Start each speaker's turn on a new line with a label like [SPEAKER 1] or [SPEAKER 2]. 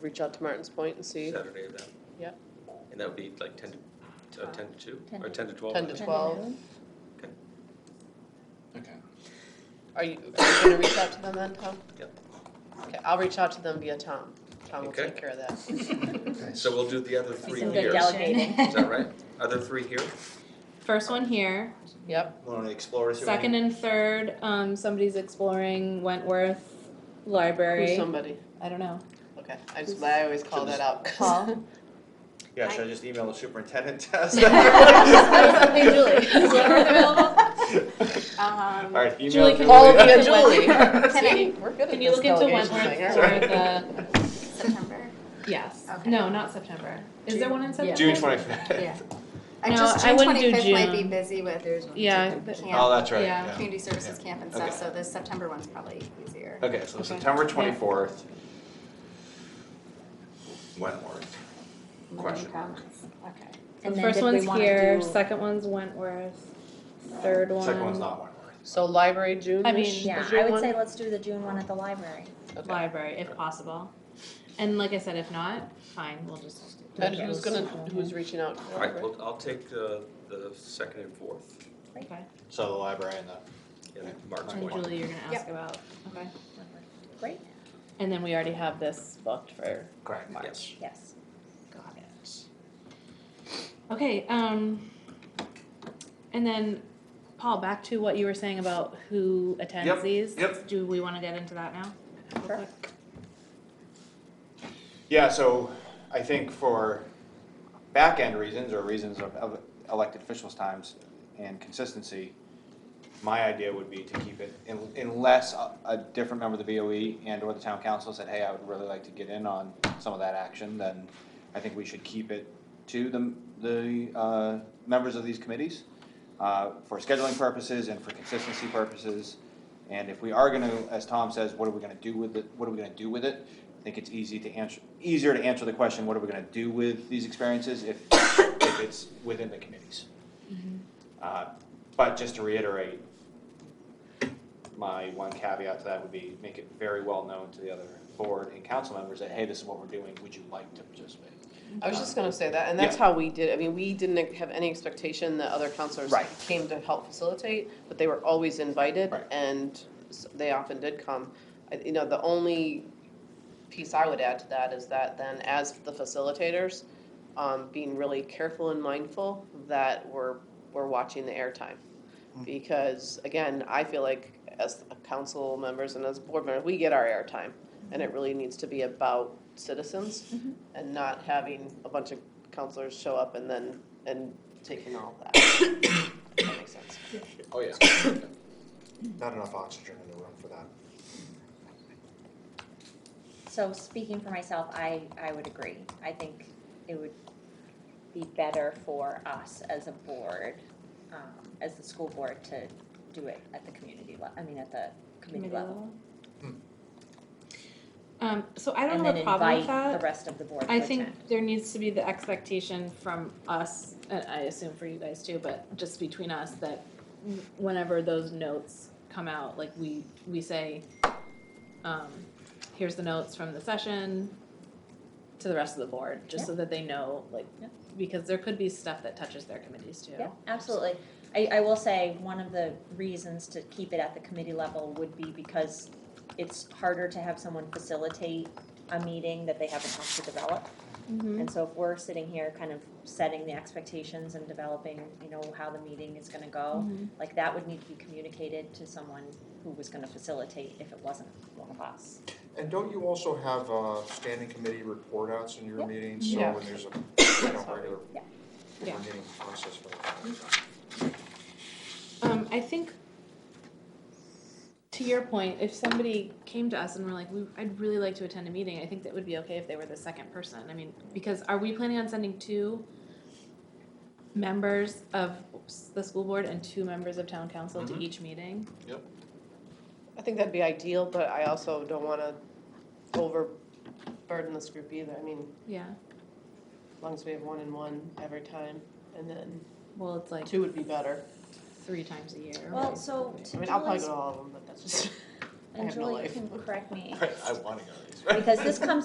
[SPEAKER 1] reach out to Martin's Point and see.
[SPEAKER 2] Saturday of that.
[SPEAKER 1] Yeah.
[SPEAKER 2] And that would be like ten to, uh, ten to two, or ten to twelve?
[SPEAKER 1] 10 to
[SPEAKER 2] right?
[SPEAKER 1] 12.
[SPEAKER 3] Okay.
[SPEAKER 1] Are you, are you gonna reach out to them then, Tom?
[SPEAKER 2] Yep.
[SPEAKER 1] Okay, I'll reach out to them via Tom. Tom will
[SPEAKER 2] Okay.
[SPEAKER 1] take care of that.
[SPEAKER 3] Okay.
[SPEAKER 2] So we'll do the other three
[SPEAKER 4] some
[SPEAKER 2] here,
[SPEAKER 4] good
[SPEAKER 2] is
[SPEAKER 4] delegating.
[SPEAKER 2] that right? Other three here?
[SPEAKER 5] First one here.
[SPEAKER 1] Yep,
[SPEAKER 6] Want to explore this?
[SPEAKER 5] Second and third, um, somebody's exploring Wentworth
[SPEAKER 1] who's
[SPEAKER 5] Library.
[SPEAKER 1] somebody?
[SPEAKER 5] I don't know.
[SPEAKER 1] Okay, I just, I always call that out. 'cause-
[SPEAKER 5] Paul?
[SPEAKER 6] Yeah, should I just email the superintendent test?
[SPEAKER 4] Hey, Julie, is Wentworth available?
[SPEAKER 5] Um,
[SPEAKER 6] All right, email
[SPEAKER 5] Julie, can
[SPEAKER 6] Julie.
[SPEAKER 5] you
[SPEAKER 1] All
[SPEAKER 5] look
[SPEAKER 1] via
[SPEAKER 5] into
[SPEAKER 1] Julie.
[SPEAKER 5] Wentworth?
[SPEAKER 1] See, we're good at
[SPEAKER 5] Can you
[SPEAKER 1] this
[SPEAKER 5] look into
[SPEAKER 1] delegation
[SPEAKER 5] Wentworth
[SPEAKER 1] thing, aren't we?
[SPEAKER 5] for the,
[SPEAKER 7] September.
[SPEAKER 5] yes,
[SPEAKER 7] Okay.
[SPEAKER 5] no, not September. Is there one in September?
[SPEAKER 6] June twenty-fifth.
[SPEAKER 7] Yeah. I
[SPEAKER 5] No,
[SPEAKER 7] just
[SPEAKER 5] I
[SPEAKER 7] June
[SPEAKER 5] wouldn't
[SPEAKER 7] twenty
[SPEAKER 5] do
[SPEAKER 7] fifth might be
[SPEAKER 5] June.
[SPEAKER 7] busy with there's
[SPEAKER 5] Yeah, but-
[SPEAKER 6] Oh,
[SPEAKER 7] camp,
[SPEAKER 6] that's right,
[SPEAKER 5] Yeah.
[SPEAKER 6] yeah.
[SPEAKER 7] community services camp and
[SPEAKER 6] Okay.
[SPEAKER 7] stuff, so the September one's probably easier.
[SPEAKER 6] Okay, so
[SPEAKER 5] Okay.
[SPEAKER 6] September
[SPEAKER 5] Yeah.
[SPEAKER 6] twenty-fourth. Wentworth. Question mark.
[SPEAKER 7] Okay.
[SPEAKER 5] The
[SPEAKER 4] And then
[SPEAKER 5] first
[SPEAKER 4] did we
[SPEAKER 5] one's
[SPEAKER 4] wanna
[SPEAKER 5] here,
[SPEAKER 4] do-
[SPEAKER 5] second one's Wentworth, third one.
[SPEAKER 6] Second one's not Wentworth.
[SPEAKER 1] So library June.
[SPEAKER 5] I mean,
[SPEAKER 4] Yeah, I would say let's do the June one at the library.
[SPEAKER 5] Library, if possible. And like I said, if not, fine, we'll just. do
[SPEAKER 1] And
[SPEAKER 5] those.
[SPEAKER 1] who's gonna, who's reaching out? to
[SPEAKER 2] All right,
[SPEAKER 1] library?
[SPEAKER 2] well, I'll take the, the second and fourth,
[SPEAKER 5] Okay.
[SPEAKER 6] So the library and the,
[SPEAKER 2] and Mark's
[SPEAKER 5] And
[SPEAKER 2] point.
[SPEAKER 5] Julie, you're gonna ask
[SPEAKER 7] Yep.
[SPEAKER 5] about, okay.
[SPEAKER 4] Great.
[SPEAKER 5] And then we already have this booked for
[SPEAKER 2] Yes.
[SPEAKER 6] correct, March.
[SPEAKER 4] Yes.
[SPEAKER 5] Got it. Okay, um, and then, Paul, back to what you were saying about who attends
[SPEAKER 6] Yep,
[SPEAKER 5] these.
[SPEAKER 6] yep.
[SPEAKER 5] Do we wanna get into that now? Real
[SPEAKER 1] Sure.
[SPEAKER 5] quick?
[SPEAKER 6] Yeah, so I think for back-end reasons or reasons of of elected officials' times and consistency, my idea would be to keep it, un- unless a, a different member of the BOE and/or the town council said, hey, I would really like to get in on some of that action, then I think we should keep it to the, the, uh, members of these committees, uh, for scheduling purposes and for consistency purposes. And if we are gonna, as Tom says, what are we gonna do with it, what are we gonna do with it? I think it's easy to answer, easier to answer the question, what are we gonna do with these experiences if, if it's within the committees? Uh, But just to reiterate, my one caveat to that would be make it very well known to the other board and council members that, hey, this is what we're doing, would you like to participate?
[SPEAKER 1] I was just gonna say that, and that's
[SPEAKER 6] Yeah.
[SPEAKER 1] how we did, I mean, we didn't have any expectation that other counselors
[SPEAKER 6] Right.
[SPEAKER 1] came to help facilitate, but they were always invited,
[SPEAKER 6] Right.
[SPEAKER 1] and s- they often did come. I- You know, the only piece I would add to that is that then as the facilitators, um, being really careful and mindful that we're, we're watching the airtime.
[SPEAKER 6] Mm-hmm.
[SPEAKER 1] Because again, I feel like as council members and as board members, we get our airtime, and it really needs to be about citizens and not having a bunch of counselors show up and then, and taking all of that. That makes sense.
[SPEAKER 6] Oh, yeah.
[SPEAKER 8] Not enough oxygen in the room for that.
[SPEAKER 4] So speaking for myself, I, I would agree. I think it would be better for us as a board, um, as the school board to do it at the community level. I mean, at the committee level.
[SPEAKER 6] Hmm.
[SPEAKER 5] Um, so I don't have a problem
[SPEAKER 4] And
[SPEAKER 5] with
[SPEAKER 4] then invite
[SPEAKER 5] that.
[SPEAKER 4] the rest of the board to
[SPEAKER 5] I
[SPEAKER 4] attend.
[SPEAKER 5] think there needs to be the expectation from us, and I assume for you guys too, but just between us, that whenever those notes come out, like we, we say, um, here's the notes from the session to the rest of the board, just so that they know, like,
[SPEAKER 4] Yeah.
[SPEAKER 5] because there could be stuff that touches their committees too.
[SPEAKER 4] Yeah, absolutely. I, I will say, one of the reasons to keep it at the committee level would be because it's harder to have someone facilitate a meeting that they haven't helped to develop.
[SPEAKER 5] Mm-hmm.
[SPEAKER 1] Mm-hmm.
[SPEAKER 4] And so if we're sitting here kind of setting the expectations and developing, you know, how the meeting is gonna go,
[SPEAKER 1] Mm-hmm.
[SPEAKER 4] like that would need to be communicated to someone who was gonna facilitate if it wasn't one of us.
[SPEAKER 8] And don't you also have uh, standing committee report outs in your
[SPEAKER 4] Yep.
[SPEAKER 8] meetings? So
[SPEAKER 1] Yeah.
[SPEAKER 8] when there's a, you know, regular
[SPEAKER 4] Yeah.
[SPEAKER 5] Yeah.
[SPEAKER 8] meeting process for that.
[SPEAKER 5] Um, I think to your point, if somebody came to us and were like, we, I'd really like to attend a meeting, I think that would be okay if they were the second person. I mean, because are we planning on sending two members of the school board and two members of town council
[SPEAKER 6] Mhm.
[SPEAKER 5] to each meeting?
[SPEAKER 1] I think that'd be ideal, but I also don't wanna overburden this group either. I mean,
[SPEAKER 5] Yeah.
[SPEAKER 1] as long as we have one and one every time, and then
[SPEAKER 5] Well, it's like
[SPEAKER 1] two would be better.
[SPEAKER 5] three times a year.
[SPEAKER 4] Well, so
[SPEAKER 1] I
[SPEAKER 4] to
[SPEAKER 1] mean, I'll probably
[SPEAKER 4] Julie's,
[SPEAKER 1] go to all of them, but that's just, I
[SPEAKER 4] and
[SPEAKER 1] have no
[SPEAKER 4] Julie
[SPEAKER 1] life.
[SPEAKER 4] can correct me,
[SPEAKER 6] I want to go.
[SPEAKER 4] because this comes